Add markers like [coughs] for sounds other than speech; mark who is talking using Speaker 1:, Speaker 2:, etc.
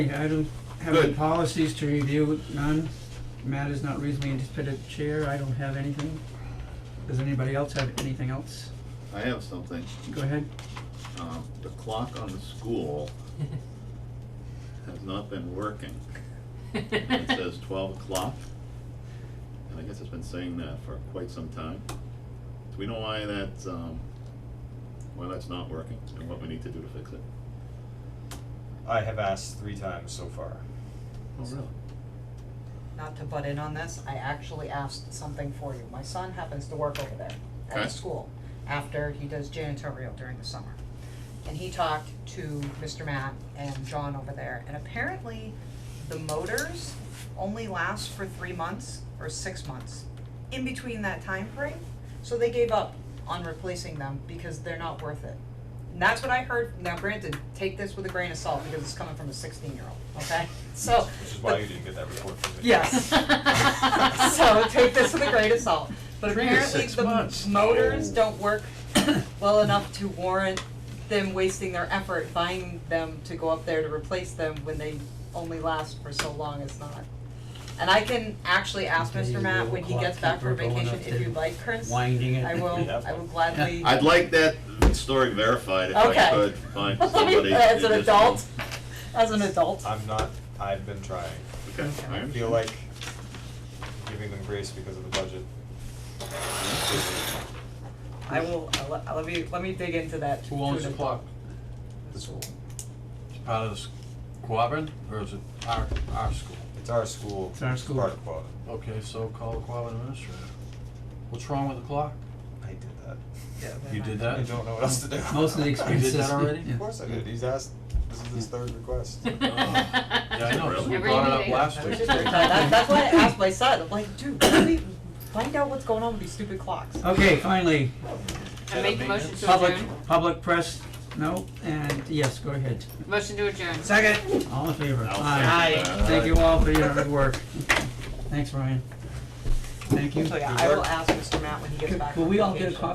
Speaker 1: I don't have any
Speaker 2: Good.
Speaker 1: policies to review, none. Matters not reasonably anticipated, Chair, I don't have anything. Does anybody else have anything else?
Speaker 2: I have something.
Speaker 1: Go ahead.
Speaker 2: Um, the clock on the school
Speaker 3: [laughs]
Speaker 2: has not been working.
Speaker 3: [laughs]
Speaker 2: It says twelve o'clock. And I guess it's been saying that for quite some time. Do we know why that's, um, why that's not working and what we need to do to fix it?
Speaker 4: I have asked three times so far.
Speaker 2: Oh, really?
Speaker 3: not to butt in on this, I actually asked something for you. My son happens to work over there at
Speaker 2: Okay.
Speaker 3: the school after he does janitorial during the summer. And he talked to Mr. Matt and John over there, and apparently the motors only last for three months or six months. In between that time frame, so they gave up on replacing them because they're not worth it. And that's what I heard, now granted, take this with a grain of salt because it's coming from a sixteen-year-old,
Speaker 4: [laughs]
Speaker 3: okay? So.
Speaker 4: Which is why
Speaker 3: the-
Speaker 4: you didn't get that report from me.
Speaker 3: Yes. so take this with a grain of salt. But
Speaker 2: Three to
Speaker 3: apparently
Speaker 2: six
Speaker 3: the
Speaker 2: months.
Speaker 3: motors
Speaker 2: Oh.
Speaker 3: don't work [coughs] well enough to warrant them wasting their effort buying them to go up there to replace them when they only last for so long, it's not. And I can actually ask
Speaker 1: Okay,
Speaker 3: Mr. Matt when he
Speaker 1: little
Speaker 3: gets back from
Speaker 1: clock keeper going
Speaker 3: vacation,
Speaker 1: up
Speaker 3: if
Speaker 1: to
Speaker 3: you'd like, Chris, I
Speaker 1: Winding it.
Speaker 3: will,
Speaker 4: have
Speaker 3: I will
Speaker 4: one.
Speaker 2: [laughs]
Speaker 3: gladly.
Speaker 2: I'd like that story verified if
Speaker 3: Okay.
Speaker 2: I could
Speaker 3: [laughs]
Speaker 2: find somebody. to
Speaker 3: As
Speaker 2: do
Speaker 3: an
Speaker 2: this.
Speaker 3: adult, as an adult.
Speaker 4: I'm not, I've been trying.
Speaker 2: Okay, I
Speaker 4: I
Speaker 2: understand.
Speaker 4: feel like giving them grace because of the budget.
Speaker 3: I will, I'll let, I'll let me, let me dig into that.
Speaker 5: Who
Speaker 3: to
Speaker 5: owns
Speaker 3: an
Speaker 5: the
Speaker 3: adult.
Speaker 5: clock? It's part of the s- Quabbin, or is it our, our school?
Speaker 4: It's our school.
Speaker 1: It's our school.
Speaker 4: Part of quota.
Speaker 5: Okay, so call the Quabbin administrator. What's wrong with the clock?
Speaker 4: I did that.
Speaker 3: Yeah,
Speaker 5: You did
Speaker 3: never
Speaker 5: that?
Speaker 4: I don't know what else to do.
Speaker 1: Most
Speaker 4: [laughs]
Speaker 1: of the expenses.
Speaker 5: that already?
Speaker 1: yeah.
Speaker 4: Of course I did. He's asked, this is his third request.
Speaker 1: [laughs]
Speaker 5: Yeah, I know, 'cause we
Speaker 2: Every
Speaker 5: brought it up
Speaker 6: meeting.
Speaker 5: last
Speaker 3: mind.
Speaker 5: week.
Speaker 3: That- That's why I asked my son, I'm like, dude, really, find out what's going on with these stupid clocks.
Speaker 1: Okay, finally,
Speaker 6: I make the motion to
Speaker 1: public,
Speaker 6: adjourn.
Speaker 1: public press, no, and yes, go ahead.
Speaker 6: Motion to adjourn.
Speaker 1: Second. All in favor?
Speaker 2: I'll
Speaker 1: Aye.
Speaker 2: second that.
Speaker 1: Thank you all for your hard work. Thanks, Ryan. Thank you.
Speaker 3: So yeah, I will ask Mr. Matt when he gets back.
Speaker 1: Will
Speaker 3: from
Speaker 1: we all get a
Speaker 3: vacation.
Speaker 1: copy?